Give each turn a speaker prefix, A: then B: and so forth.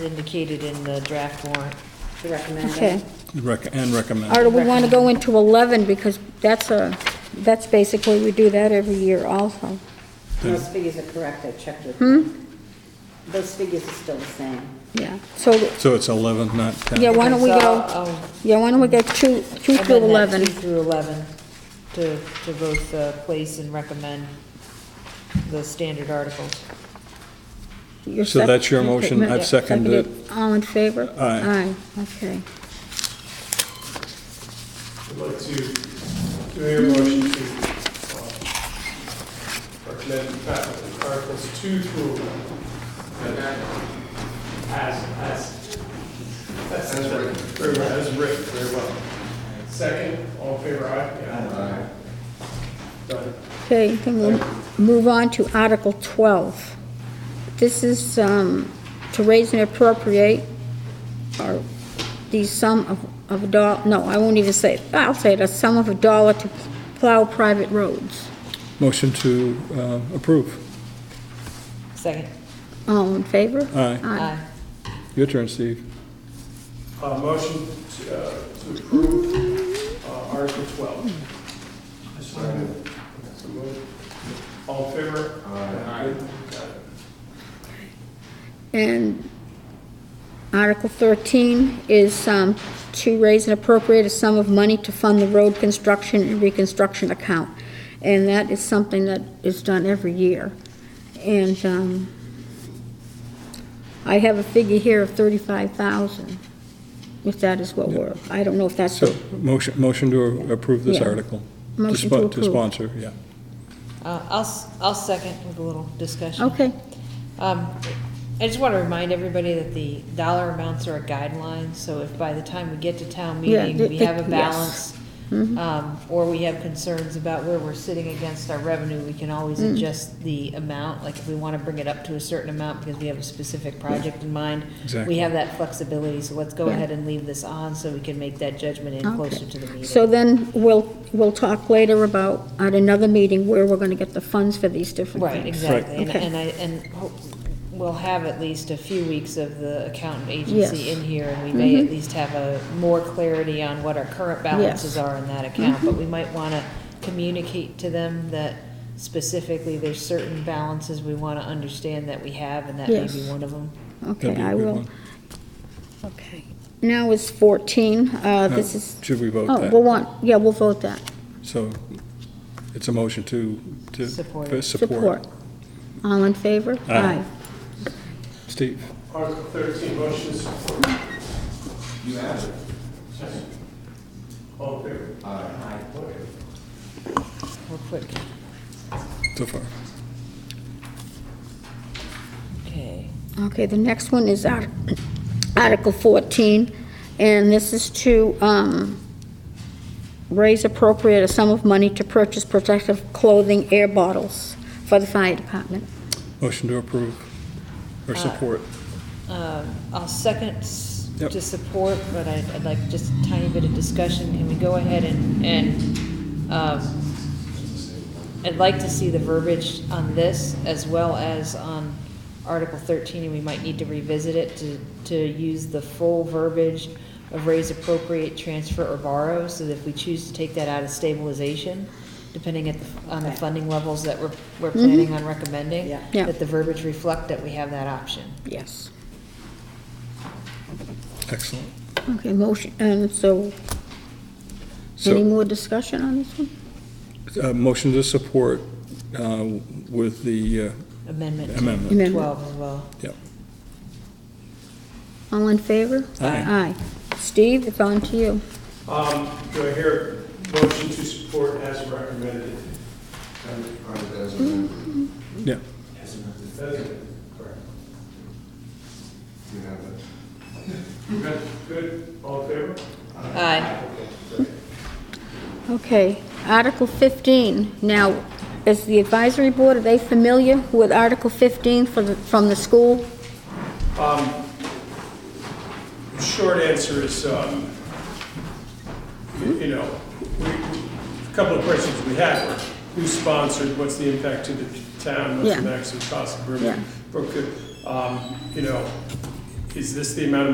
A: indicated in the draft warrant to recommend.
B: Okay.
C: Rec- and recommend.
B: Or do we want to go into 11, because that's a, that's basically, we do that every year also.
D: Those figures are correct, I checked with
B: Hmm?
D: Those figures are still the same.
B: Yeah, so,
C: So it's 11, not 10?
B: yeah, why don't we
A: So,
B: go,
A: I'll-
B: yeah, why don't we go 2, 2
A: I'll
B: through
A: um, amend that
B: 11?
A: Two through 11, to, to both uh, place and recommend the standard articles.
B: You're
C: So
B: sec-
C: that's your motion.
B: okay,
C: I've seconded it.
B: All in favor?
C: Aye.
B: Aye, okay.
E: I'd like to, do I hear a motion to uh, recommend faculty articles two through eleven? As, as. As written. Very well, as written, very well. Second, all in favor, aye? Aye. Done.
B: Okay, then we'll move on to Article 12. This is um, to raise and appropriate, or the sum of, of a dollar, no, I won't even say, it. I'll say it, a sum of a dollar to plow private roads.
C: Motion to uh, approve.
A: Second.
B: All in favor?
C: Aye.
B: Aye.
C: Your turn, Steve.
E: Uh, motion to, uh, to approve, uh, Article twelve. So moved. All in favor? Aye. Got it.
B: And Article 13 is um, to raise and appropriate a sum of money to fund the road construction and reconstruction account. And that is something that is done every year. And um, I have a figure here of 35,000, if that is what we're, I don't know if that's,
C: So motion, motion to approve this
B: Yeah.
C: article.
B: Motion
C: spon-
B: to approve.
C: sponsor, yeah.
A: Uh, I'll, s- I'll second with a little discussion.
B: okay,
A: Um, I just want to remind everybody that the dollar amounts are a guideline, so if by the time we get to town
B: Yeah,
A: meeting,
B: they-
A: we
B: they-
A: have a
B: yes. Mm-hmm.
A: balance, um, or we have concerns about where we're sitting against our revenue, we can always
B: Mm.
A: adjust the amount, like if we want to bring it up to a certain amount because we have a specific project in mind, we
C: Exactly.
A: have that flexibility, so let's go
B: Yeah.
A: ahead and leave this on so we can make that judgment in closer to the
B: okay.
A: meeting.
B: So then, we'll, we'll talk later about, at another meeting, where we're going to get the funds for these different things.
A: Right, exactly, and,
B: Okay.
A: and I, and hope- we'll have at least a few weeks of the accountant agency
B: Yes. Mm-hmm.
A: in here, and we may at least have a, more clarity on what our current balances
B: Yes. Mm-hmm.
A: are in that account, but we might wanna communicate to them that specifically there's certain balances we wanna understand that we have, and that may be
B: Yes.
A: one of them.
C: That'd
B: Okay,
C: be a
B: I
C: good
B: will.
C: one.
B: Okay. Now is 14, uh,
C: Now,
B: this is,
C: Should we vote
B: oh, we'll
C: that?
B: want, yeah, we'll vote that.
C: So it's a motion to, to. uh,
A: Support.
C: for
B: Support. All in favor?
C: Aye. Steve,
E: Article 13, motion to support. You have it. All in favor?
A: Real quick,
C: so far.
A: okay.
B: Okay, the next one is Art- Article 14, and this is to um, raise appropriate a sum of money to purchase protective clothing, air bottles for the fire department.
C: Motion to approve or support.
A: Um, I'll second s-
C: Yep.
A: to support, but I'd, I'd like just a tiny bit of discussion. Can we go ahead and, and, um, I'd like to see the verbiage on this as well as on Article thirteen, and we might need to revisit it to, to use the full verbiage of raise appropriate, transfer or borrow, so that if we choose to take that out of stabilization, depending at, the- on
D: Okay.
A: the
D: Mm-hmm.
A: funding levels that we're, we're planning on recommending,
D: Yeah.
B: Yeah.
A: that the verbiage reflect that we have that option.
B: Yes.
C: Excellent.
B: Okay, motion, and so, any
C: So,
B: more discussion on this one?
C: uh, motion to support uh, with the uh,
A: Amendment to
C: amendment.
B: Amendment.
A: 12 as well.
C: Yep.
B: All in favor?
C: Aye.
B: Aye. Steve, it's on to you.
E: Um, Do I hear a motion to support as recommended?
C: Yeah.
E: That is- Good, good, all in favor?
A: Aye.
B: Okay, Article 15. Now, is the advisory board, are they familiar with Article 15 for the- from the school?
E: Um, Short answer is, um, you you know, we- a couple of questions we had were, who sponsored, what's the impact to the town, what's the
B: Yeah.
E: maximum cost of
B: Yeah.
E: Brookfield? You um, know, is this the amount of